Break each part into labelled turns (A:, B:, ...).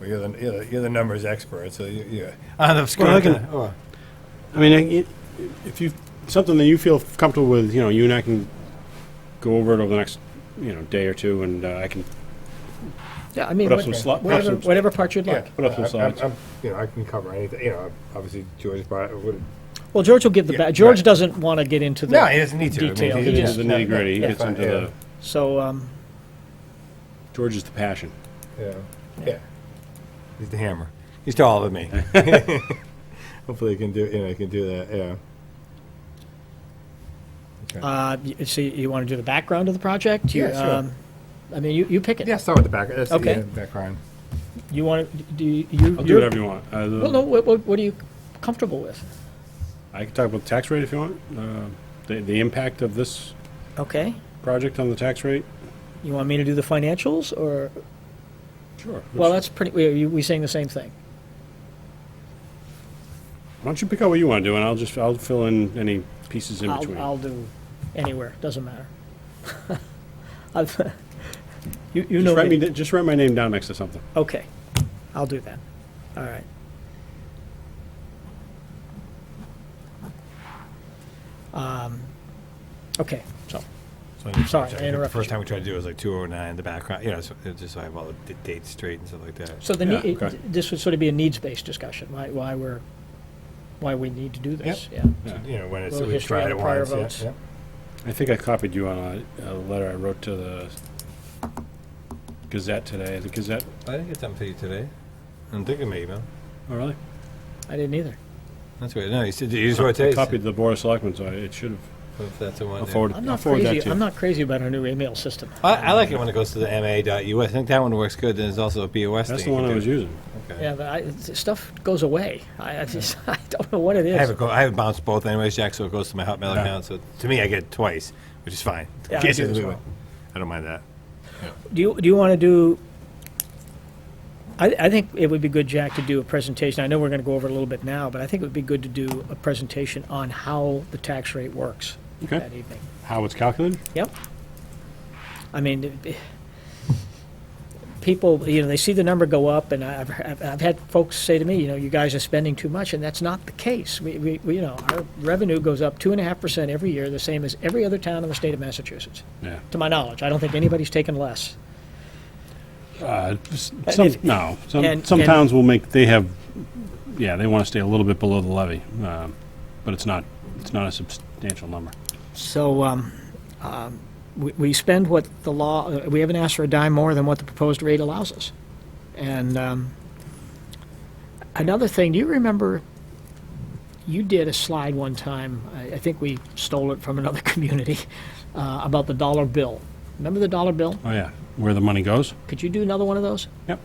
A: Well, you're the, you're the, you're the numbers expert, so you, you, on Ah, the
B: Well,
A: screen.
B: I can- I mean, I- it- if you, something that you feel comfortable with, you know, you and I can go over it over the next, you know, day or two, and uh, I can
C: Yeah, I mean,
B: Put up
C: what-
B: some sli- put up
C: whatever,
B: some-
C: whatever part you'd
A: Yeah,
C: like.
B: Put up
A: I-
B: some
A: I'm-
B: slides.
A: I'm- You know, I can cover anything, you know, obviously George brought, would-
C: Well, George will give the,
A: Yeah,
C: ba- George
A: right.
C: doesn't want to get into the.
A: no, he doesn't need to. I mean,
C: Detail,
A: he
B: get into
A: just-
B: the nitty gritty. He
A: Yeah,
B: gets
A: fine,
B: into
A: yeah.
B: the
C: So, um,
B: George is the passion.
A: Yeah, yeah. He's the hammer. He's taller than me. Hopefully, he can do. You know, he can do that. Yeah. Okay.
C: uh, y- so you want to do the background of the project? You,
A: Yeah, sure.
C: um, I mean, you, you pick it.
A: yeah, start with the back. That's
C: Okay.
A: The, uh, background.
C: You want to, do you? you-
B: I'll do
C: you're-
B: whatever you want. Uh,
C: Well, no, what, what what are you comfortable with?
B: I can talk about the tax rate if you want. Uh, the, the impact of this
C: Okay,
B: project on the tax rate.
C: you want me to do the financials or,
B: Sure.
C: well, that's pretty, we, we saying the same thing?
B: Why don't you pick out what you want to do, and I'll just I'll fill in any pieces in between.
C: I'll, I'll do anywhere, doesn't matter. I've- You, you know
B: just, write me,
C: me.
B: d- just write my name down next to something.
C: Okay, I'll do that. All right. Um, Okay,
B: So
A: So I-
C: Sorry,
A: so
C: I
A: think
C: interrupted
A: The first
C: you.
A: time we tried to do it was like 209. The background. You know, so it just so I have all the d- dates straight and stuff like that.
C: so the,
B: Yeah,
C: nee-
B: okay.
C: this would sort of be a needs-based discussion, why, why we're, why we need to do this, yeah.
A: you know, when it's
C: Little
A: we
C: history
A: tried
C: on
A: it
C: prior
A: once.
C: votes.
A: Yeah, yeah.
B: I think I copied you on a, a letter I wrote to the Gazette today. The Gazette.
A: I didn't get something for you today. I'm thinking maybe.
B: Oh, really?
C: I didn't either.
A: That's weird. No, you, said, you just wrote
B: I
A: it.
B: copied the Board of Selectmen, so I, it should have.
A: If that's the one.
B: I'll
A: yeah.
B: forward,
C: I'm
B: I'll
C: not
B: forward that
C: crazy,
B: to you.
C: I'm not crazy about our new email system.
A: I, I like it when it goes to the ma.us. I think that one works good. There's also a BOS.
B: That's the
A: thing you
B: one
A: can
B: I
A: do.
B: was using.
A: Okay.
C: Yeah, but I, it's- stuff goes away. I, I just, I don't know what it
A: I have it
C: is.
A: go, I have it bounced both anyways, Jack. So it goes to my Hotmail
B: Yeah.
A: account. So to me, I get it twice, which is fine.
C: Yeah, I
A: Gives
C: do
A: you the
C: as
A: leeway.
C: well.
A: I don't mind that.
C: Do you, do you want to do, I, I think it would be good, Jack, to do a presentation. I know we're going to go over it a little bit now, but I think it would be good to do a presentation on how the tax rate works
B: Okay.
C: that evening.
B: How it's calculated?
C: Yep. I mean, it- it- people, you know, they see the number go up, and I've, I've- I've had folks say to me, you know, you guys are spending too much, and that's not the case. We, we, we, you know, our revenue goes up two and a half percent every year, the same as every other town in the state of Massachusetts,
B: Yeah.
C: to my knowledge. I don't think anybody's taken less.
B: Uh, s-
C: And
B: some,
C: if-
B: no, some,
C: and-
B: some
C: and-
B: towns will make, they have, yeah, they want to stay a little bit below the levy, um, but it's not, it's not a substantial number.
C: So, um, um, we, we spend what the law, uh, we haven't asked for a dime more than what the proposed rate allows us. And, um, another thing, do you remember, you did a slide one time, I, I think we stole it from another community, uh, about the dollar bill. Remember the dollar bill?
B: Oh, yeah, where the money goes?
C: Could you do another one of those?
B: Yep.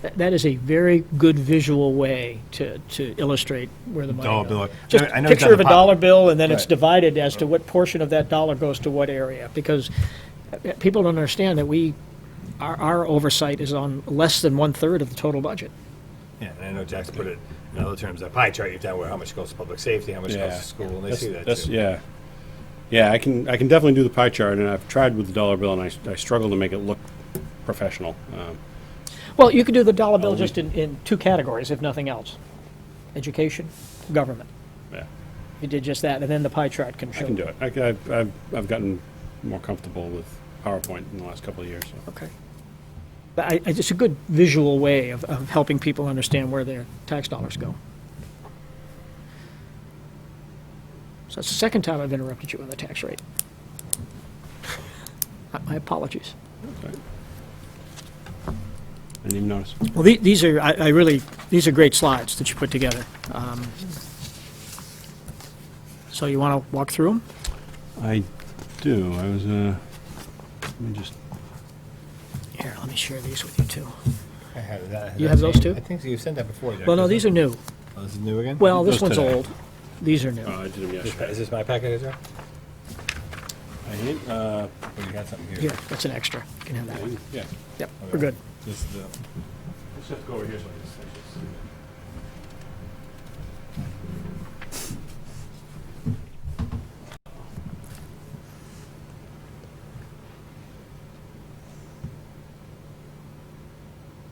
C: That, that is a very good visual way to, to illustrate where the money
A: Dollar
C: goes.
A: bill. I
C: Just
A: know- I know it's
C: picture
A: on
C: of
A: the
C: a
A: pop-
C: dollar bill, and then it's
A: Right.
C: divided as to what portion of that dollar goes to what area, because uh, people don't understand that we, our, our oversight is on less than one-third of the total budget.
A: Yeah, and I know Jack's put it in other terms. That pie chart you've done where how much goes to public safety, how much goes
B: Yeah.
A: to school, and they
B: That's-
A: see that
B: that's-
A: too.
B: Yeah, yeah, I can, I can definitely do the pie chart, and I've tried with the dollar bill, and I, s- I struggle to make it look professional. Um,
C: Well, you could do the dollar bill
B: we-
C: just in, in two categories, if nothing else. Education, government.
B: Yeah,
C: You did just that, and then the pie chart can show.
B: I can do it. I, ca- I've, I've- I've gotten more comfortable with PowerPoint in the last couple of years, so.
C: Okay. But I, I- it's a good visual way of, of helping people understand where their tax dollars go. So that's the second time I've interrupted you on the tax rate. Uh, My apologies.
B: I didn't even notice.
C: Well, the- these are, I, I really, these are great slides that you put together. Um, So you want to walk through them?
B: I do, I was, uh, let me just,
C: Here, let me share these with you too.
A: I have that. I
C: You
A: that
C: have those
A: same-
C: too?
A: I think so. you've sent that before, Jack.
C: Well, no,
A: isn't
C: these
A: it?
C: are new.
A: Oh, this is new again?
C: Well, this
B: Those
C: one's
B: today.
C: old. These are new.
B: oh, I did
A: This
B: them
A: pa-
B: yesterday.
A: is this my packet as well?
B: I hate, uh,
A: Or Oh, you got something here?
C: Here, that's an extra. You can have that one.
B: yeah.
C: Yep, we're good.
A: This is the-
B: Let's just go over here so I can see.